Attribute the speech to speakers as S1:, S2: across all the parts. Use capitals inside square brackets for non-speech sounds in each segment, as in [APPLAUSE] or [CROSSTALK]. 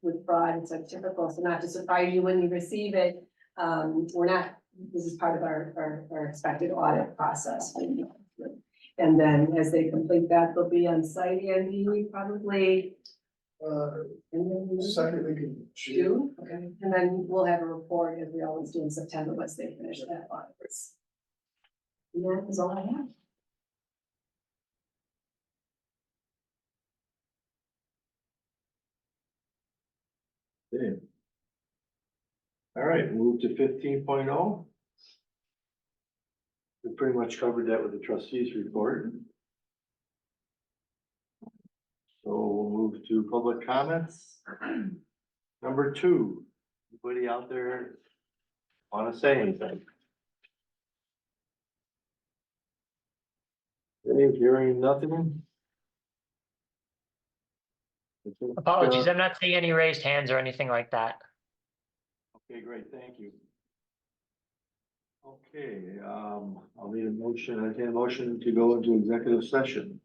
S1: with fraud and so typical, so not to surprise you when you receive it. Um, we're not, this is part of our, our, our expected audit process. And then as they complete that, they'll be on site, Andy, probably,
S2: Uh,
S1: and then
S2: second week in June.
S1: June, okay, and then we'll have a report as we always do in September, once they finish that audit. And that is all I have.
S3: All right, move to fifteen oh. We pretty much covered that with the trustees report. So we'll move to public comments. Number two, anybody out there wanna say anything? Dave, hearing nothing? Uh,
S4: Apologies, I'm not seeing any raised hands or anything like that.
S3: Okay, great, thank you. Okay, um, I'll need a motion, I need a motion to go into executive session.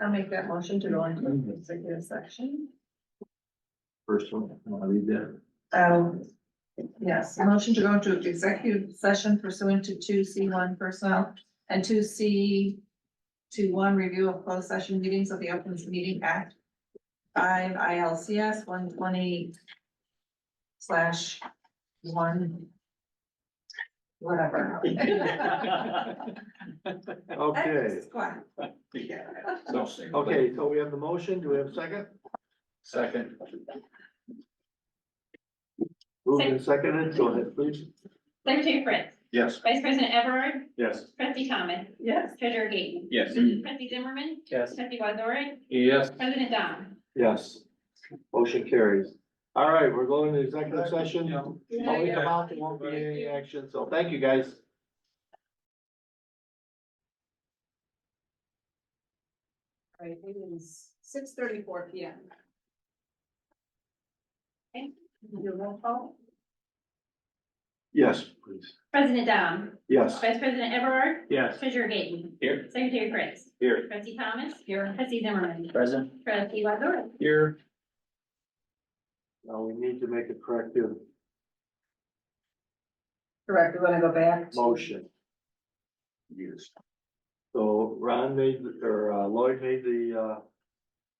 S5: I'll make that motion to go into executive section.
S3: First one, I'll read that.
S5: Um, yes, motion to go into executive session pursuant to two C one personnel and two C two one review of closed session meetings of the Open Meeting Act. Five ILCS one twenty slash one whatever.
S3: Okay,
S5: Squat.
S3: okay, so we have the motion, do we have a second?
S2: Second.
S3: Moved and seconded, go ahead, please.
S6: Secretary Fritz,
S2: Yes.
S6: Vice President Everard,
S2: Yes.
S6: Trustee Thomas,
S5: Yes.
S6: Treasurer Gaten.
S2: Yes.
S6: Trustee Zimmerman,
S2: Yes.
S6: Trustee Wazorek,
S2: Yes.
S6: President Dom.
S3: Yes. Motion carries. All right, we're going to executive session. When we come out, there won't be any action, so thank you, guys.
S1: All Right, it is six thirty-four P M.
S6: Okay.
S1: Your roll call?
S3: Yes, please.
S6: President Dom,
S3: Yes.
S6: Vice President Everard,
S3: Yes.
S6: Treasurer Gaten.
S2: Here.
S6: Secretary Fritz,
S3: Here.
S6: Trustee Thomas,
S5: Here.
S6: Trustee Zimmerman,
S2: Present.
S6: Trustee Wazorek.
S2: Here.
S3: Now we need to make a corrective
S1: Correct, we wanna go back. to-
S3: motion. Yes. So Ron made, the- or uh, Lloyd made the, uh,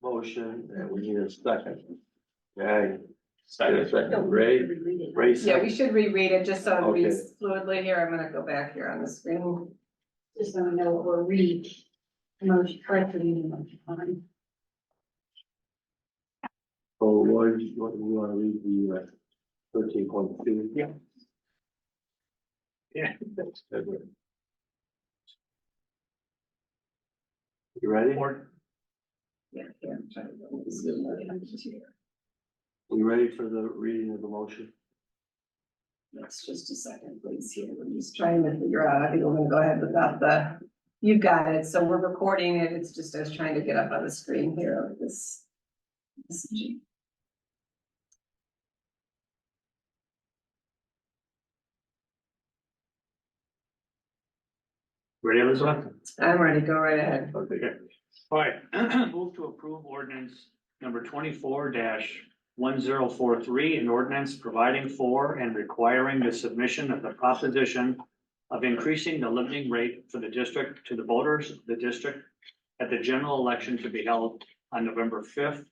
S3: motion and we need a second. Okay. Second, Ray, Ray
S1: Yeah, we
S3: second.
S1: should reread it, just so it reads
S3: Okay.
S1: fluidly here, I'm gonna go back here on the screen.
S6: Just so I know what we're reading. Motion, correctly reading motion.
S3: So Lloyd, you want, you want to read the uh, thirteen point two? Yeah. Yeah. You ready?
S1: Yeah, here.
S3: You ready for the reading of the motion?
S1: That's just a second, please, here, we're just trying to figure out, I think we're gonna go ahead without the, you've got it, so we're recording it, it's just us trying to get up on the screen here, with this. this-
S7: Ready, Elizabeth?
S1: I'm ready, go right ahead.
S7: All right, [CLEARS THROAT] move to approve ordinance number twenty-four one zero four three, an ordinance providing for and requiring the submission of the proposition of increasing the limiting rate for the district to the voters of the district at the general election to be held on November fifth,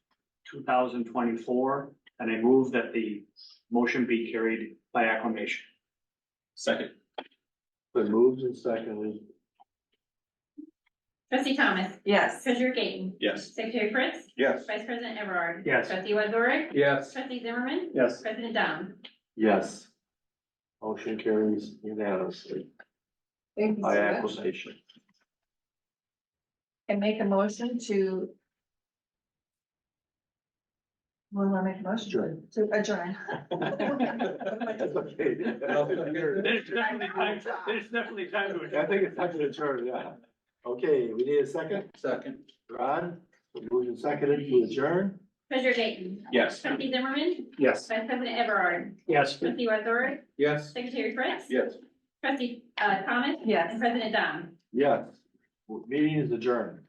S7: two thousand twenty-four, and I move that the motion be carried by acclamation.
S2: Second.
S3: Been moved and secondly,
S6: Trustee Thomas,
S5: Yes.
S6: Treasurer Gaten,
S2: Yes.
S6: Secretary Fritz,
S2: Yes.
S6: Vice President Everard.
S7: Yes.
S6: Trustee Wazorek,
S2: Yes.
S6: Trustee Zimmerman,
S7: Yes.
S6: President Dom.
S3: yes. Motion carries unanimously
S1: Thank you
S3: by
S1: so much.
S3: acclamation.
S5: And make a motion to. Well, I make a motion
S3: Sure.
S5: to adjourn. [LAUGHS]
S3: That's okay.
S7: There's definitely time, there's definitely time to
S3: I think it's time to adjourn, yeah. Okay, we need a second.
S2: Second.
S3: Ron, moved and seconded to adjourn?
S6: Treasurer Gaten.
S2: Yes.
S6: Trustee Zimmerman,
S7: Yes.
S6: Vice President Everard,
S7: Yes.
S6: Trustee Wazorek,
S2: Yes.
S6: Secretary Fritz.
S2: Yes.
S6: Trustee, uh, Thomas.
S5: Yes.
S6: And President Dom.
S3: Yes. Meeting is adjourned.